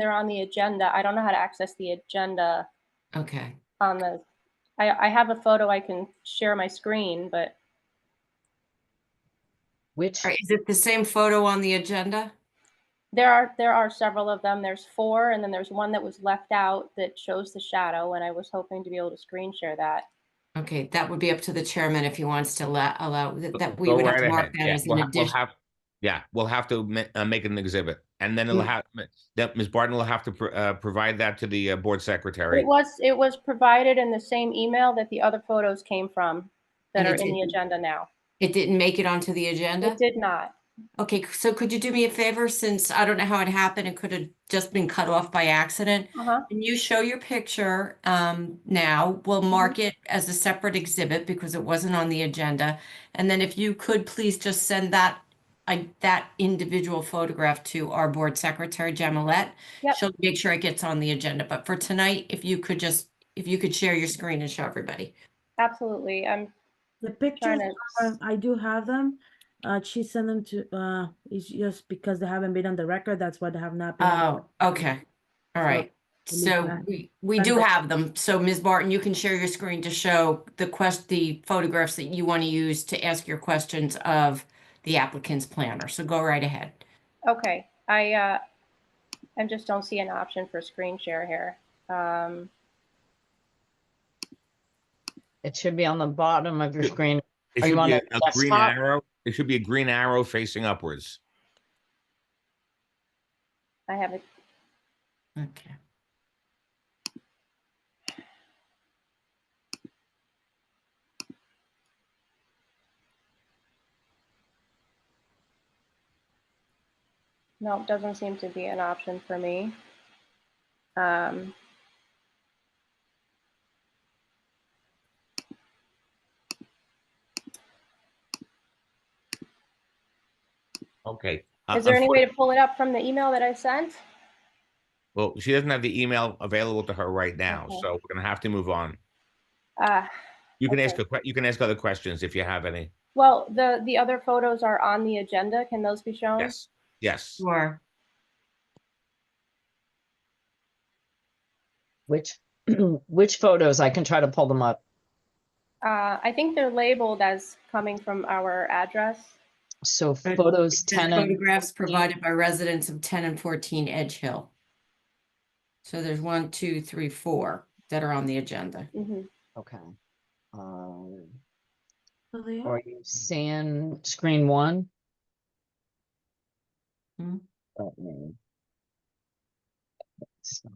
they're on the agenda. I don't know how to access the agenda Okay. on the, I, I have a photo I can share my screen, but Which, All right, Is it the same photo on the agenda? there are, there are several of them. There's four, and then there's one that was left out that shows the shadow, and I was hoping to be able to screen share that. Okay, that would be up to the chairman if he wants to allow, allow, that- that we Go would have right to mark ahead. that Yeah, as we'll an ha- we'll addition. have- Yeah, we'll have to ma- uh, make it an exhibit and then it'll Mm. have, that Ms. Barton will have to pr- uh, provide that to the uh, board secretary. It was, it was provided in the same email that the other photos came from that And are it in the didn't- agenda now. It didn't make it onto the agenda? It did not. Okay, c- so could you do me a favor, since I don't know how it happened, it could have just been cut off by accident? Uh-huh. Can you show your picture um, now? Mm-hmm. We'll mark it as a separate exhibit because it wasn't on the agenda. And then if you could please just send that, I- that individual photograph to our board secretary, Jamilette. Yep. She'll make sure it gets on the agenda, but for tonight, if you could just, if you could share your screen and show everybody. Absolutely. I'm The pictures, trying to, are- I do have them. Uh, she sent them to, uh, it's just because they haven't been on the record, that's why they have not been. on Oh, okay, all So, right. leave So that- we, we that do back. have them. So Ms. Barton, you can share your screen to show the quest, the photographs that you want to use to ask your questions of the applicant's planner. So go right ahead. okay, I, uh, I just don't see an option for screen share here. Um, it should be on the bottom of your screen. It Are you should on be a a a green desktop? arrow, it should be a green arrow facing upwards. I have it. Okay. No, it doesn't seem to be an option for me. Um, Okay. Uh, is there any way unfor- to pull it up from the email that I sent? Well, she doesn't have the email available to her right now, Okay. so we're gonna have to move on. Uh, You can ask, Okay. a que- you can ask other questions if you have any. well, the, the other photos are on the agenda. Can those be shown? Yes, yes. Sure. Which, which photos? I can try to pull them up. Uh, I think they're labeled as coming from our address. So Right. photos Just ten and, Photographs provided by residents of ten and fourteen Edge Hill. So there's one, two, three, four that are on the agenda. Mhm. okay. Um, So they are. Are you seeing screen one? Hmm? Let me- It's not-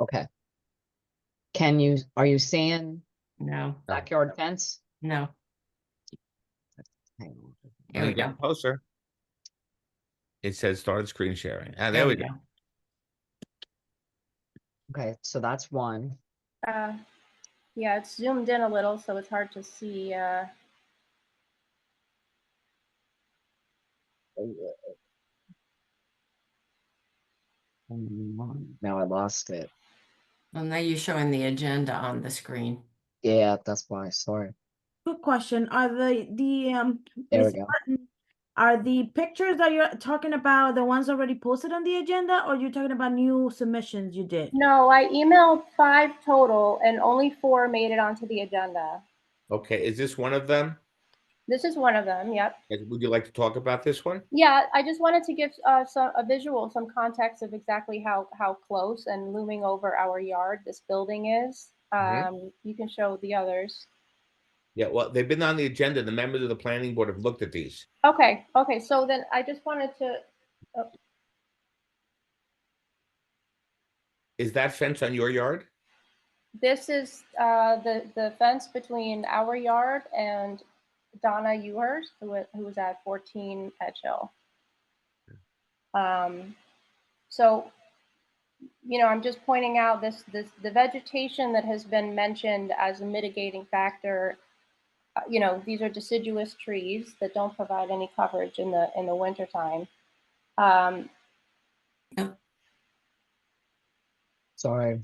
Okay. Can you, are you seeing No, No. backyard fence? no. Hang on. There And we again, go. Closer. It says started screen sharing. Ah, there we go. Okay, so that's one. Uh, yeah, it's zoomed in a little, so it's hard to see, uh, Uh, um, Now I lost it. Well, now you're showing the agenda on the screen. Yeah, that's why, sorry. Good question. Are the, the, um, There we Miss go. Martin, are the pictures that you're talking about the ones already posted on the agenda, or you're talking about new submissions you did? No, I emailed five total and only four made it onto the agenda. Okay, is this one of them? This is one of them, yep. Uh, Would you like to talk about this one? Yeah, I just wanted to give uh, some, a visual, some context of exactly how, how close and looming over our yard this building is. Mhm. Um, you can show the others. Yeah, well, they've been on the agenda. The members of the planning board have looked at these. Okay, okay, so then I just wanted to, Is that fence on your yard? this is uh, the, the fence between our yard and Donna Ewers, who wa- who was at 14 Edge Hill. Um, so, you know, I'm just pointing out this, this, the vegetation that has been mentioned as a mitigating factor. uh, You know, these are deciduous trees that don't provide any coverage in the, in the wintertime. Um, Sorry,